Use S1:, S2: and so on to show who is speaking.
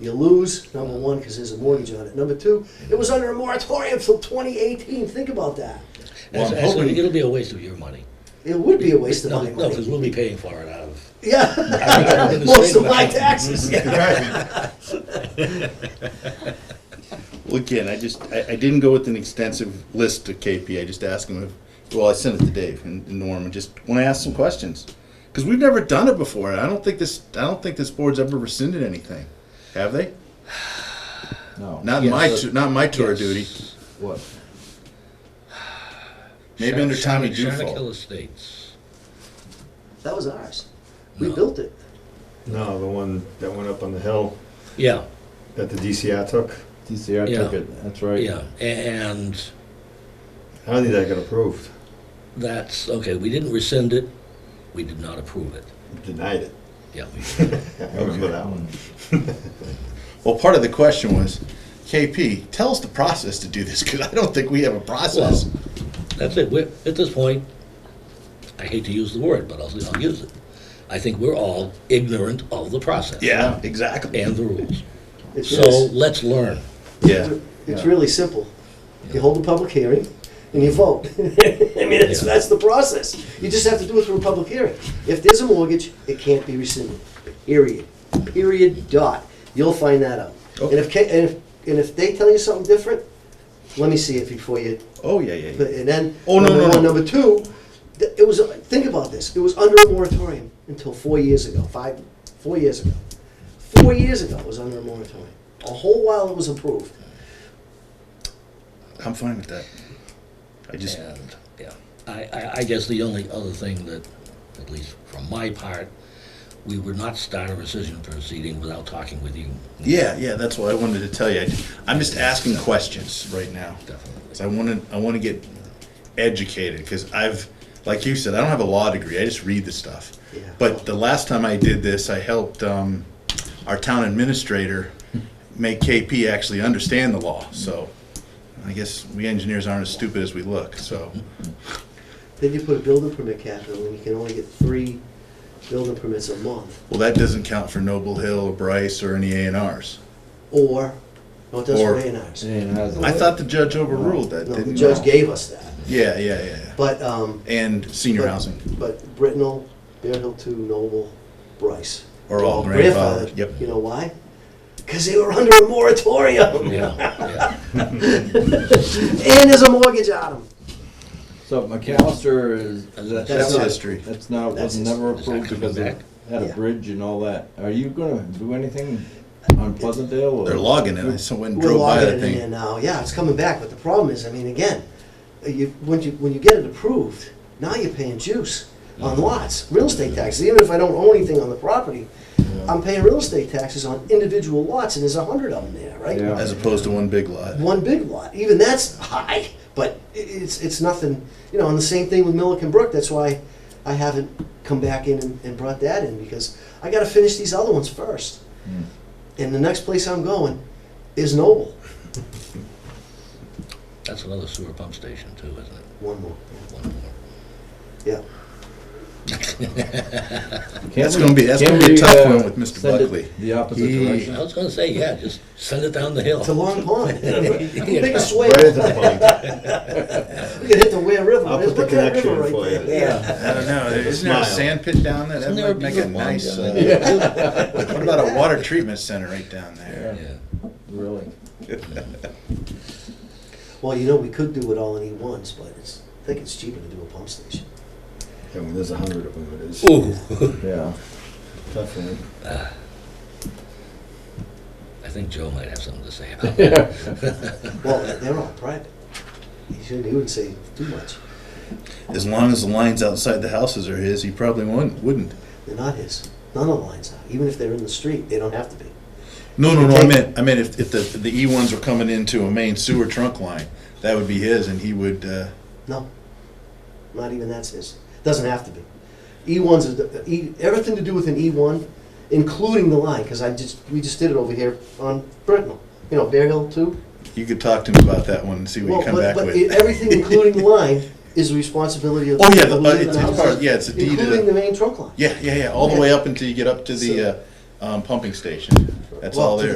S1: You lose, number one, because there's a mortgage on it. Number two, it was under a moratorium till 2018. Think about that.
S2: Well, I'm
S3: Actually, actually,
S2: hoping-
S3: it'll be a waste of your money.
S1: It would be a waste of
S3: No,
S1: my
S3: No, because
S1: money.
S3: we'll be paying for it out of.
S1: Yeah, most of
S3: Mm-hmm.
S1: my taxes.
S2: Well, again, I just, I, I didn't go with an extensive list to KP, I just asked him if, well, I sent it to Dave and and Norm, and just wanna ask some questions. Cause we've never done it before, and I don't think this, I don't think this board's ever rescinded anything, have they?
S4: No.
S2: Not in my,
S3: Yes.
S2: tou- not in my tour of duty,
S3: Yes.
S4: What?
S2: maybe under Tommy
S3: Shannakill
S2: Dufault.
S3: Estates.
S1: That was ours. We
S3: No.
S1: built it.
S5: No, the one that went up on the hill
S3: Yeah,
S5: that the DCR took.
S4: DCR took
S3: Yeah.
S4: it, that's right.
S3: yeah, A- and
S5: I don't think that got approved.
S3: that's, okay, we didn't rescind it, we did not approve it.
S5: Denied it.
S3: Yeah, we
S5: I remember that one.
S2: Well, part of the question was, KP, tell us the process to do this, cause I don't think we have a process.
S3: That's it. We're, at this point, I hate to use the word, but I'll, I'll use it. I think we're all ignorant of the process
S2: Yeah, exactly,
S3: and the rules.
S1: It's
S3: So
S1: really-
S3: let's learn.
S2: yeah.
S1: It's
S4: Yeah.
S1: really simple. You hold a public hearing and you vote. I mean, that's,
S3: Yeah.
S1: that's the process. You just have to do it through a public hearing. If there's a mortgage, it can't be rescinded, period, period, dot. You'll find that out. And if, ca- and if, and if they tell you something different, let me see it before you,
S2: Oh, yeah, yeah, yeah.
S1: and then,
S2: Oh, no,
S1: number
S2: no,
S1: one,
S2: no.
S1: number two, th- it was, think about this, it was under a moratorium until four years ago, five, four years ago. Four years ago, it was under a moratorium. A whole while it was approved.
S2: I'm fine with that. I just,
S3: And, yeah, I, I, I guess the only other thing that, at least from my part, we would not start a rescission proceeding without talking with you.
S2: Yeah, yeah, that's what I wanted to tell you. I- I'm just asking questions right now.
S3: Definitely.
S2: 'Cause I want to, I want to get educated because I've, like you said, I don't have a law degree. I just read the stuff.
S1: Yeah.
S2: But the last time I did this, I helped um, our town administrator make KP actually understand the law. So I guess we engineers aren't as stupid as we look. So
S1: Then you put a building permit cap in, and you can only get three building permits a month,
S2: well, that doesn't count for Noble Hill, or Bryce, or any A and R's.
S1: or, no, it doesn't
S2: Or-
S1: rain ours.
S2: I thought the judge overruled that.
S1: No, the
S2: didn't he?
S1: judge gave us that,
S2: Yeah, yeah, yeah. yeah.
S1: but, um.
S2: And senior
S1: but-
S2: housing.
S1: But Brittenell, Bear Hill Two, Noble, Bryce.
S2: Are all
S1: They're all
S2: grandfathered, yep.
S1: You know why? Because they were under a moratorium,
S3: Yeah, yeah.
S1: and there's a mortgage on them.
S4: So McAllister is, is that-
S1: That's
S4: that was-
S2: history.
S4: That's not,
S1: That's
S4: was
S1: his-
S4: never
S3: Is that
S4: approved
S3: coming
S4: because it
S3: back?
S4: had
S1: Yeah.
S4: a bridge and all that. Are you gonna do anything on Pleasantdale or?
S2: They're logging it. I saw when
S1: We're
S2: drove by
S1: logging
S2: that
S1: it in there
S2: thing.
S1: now, yeah, it's coming back, but the problem is, I mean, again, you, when you, when you get it approved, now you're paying juice on lots, real estate taxes, even if I don't own anything on the property, I'm paying real estate taxes on individual lots, and there's a hundred of them there,
S4: Yeah.
S1: right?
S2: As opposed to one big lot.
S1: One big lot, even that's high, but i- it's, it's nothing, you know, and the same thing with Milliken Brook, that's why I haven't come back in and, and brought that in, because I gotta finish these other ones first.
S4: Hmm.
S1: And the next place I'm going is Noble,
S3: That's another sewer pump station too, isn't it?
S1: one more,
S3: One more.
S1: yeah.
S4: Can't
S2: That's
S4: we-
S2: gonna be- that's
S4: can't
S2: gonna be a
S4: we,
S2: tough
S4: uh,
S2: one with Mr.
S4: send it
S2: Buckley.
S4: The opposite
S2: He-
S4: direction?
S3: I was gonna say, yeah, just send it down the hill.
S1: to Long Pond. Make a swing.
S5: Right at the
S1: We could hit the Ware River.
S5: I'll put the
S1: Look at that
S5: connection
S1: river
S5: for
S1: right
S5: you.
S1: there. Yeah.
S2: I don't know, isn't there a
S5: Smile.
S2: sand pit down there? That
S3: Isn't there a
S2: might make a
S3: beautiful one
S2: nice,
S3: down
S2: uh, what about a water treatment center right down
S4: Yeah.
S2: there?
S3: Yeah.
S4: Really?
S1: Well, you know, we could do it all in E1s, but it's, I think it's cheaper to do a pump station.
S5: point. And when there's a hundred of them, it is.
S3: Ooh,
S4: Yeah.
S5: Definitely.
S3: I think Joe might have something to say about that.
S1: Well, they're all private. He shouldn't, he wouldn't say too much.
S2: As long as the lines outside the houses are his, he probably wouldn't, wouldn't.
S1: They're not his. None of the lines are. Even if they're in the street, they don't have to be.
S2: No, no, no, I meant, I meant if, if the, the E ones were coming into a main sewer trunk line, that would be his and he would, uh,
S1: No. Not even that's his. Doesn't have to be. E1's, is the- E, everything to do with an E1, including the line, because I just, we just did it over here on Brittenell. You know, Bear Hill too.
S2: you could talk to him about that one and see what
S1: Well,
S2: you come
S1: but-
S2: back
S1: but
S2: with.
S1: it- Everything, including the line, is the responsibility of.
S2: Oh, yeah, the-
S1: of
S2: uh,
S1: leaving
S2: it's-
S1: the
S2: it's
S1: house,
S2: part- yeah, it's a deed to the-
S1: Including the main trunk line.
S2: Yeah, yeah, yeah, all the way up until you get up to the, uh, um, pumping station. That's all
S1: Well, to
S2: there.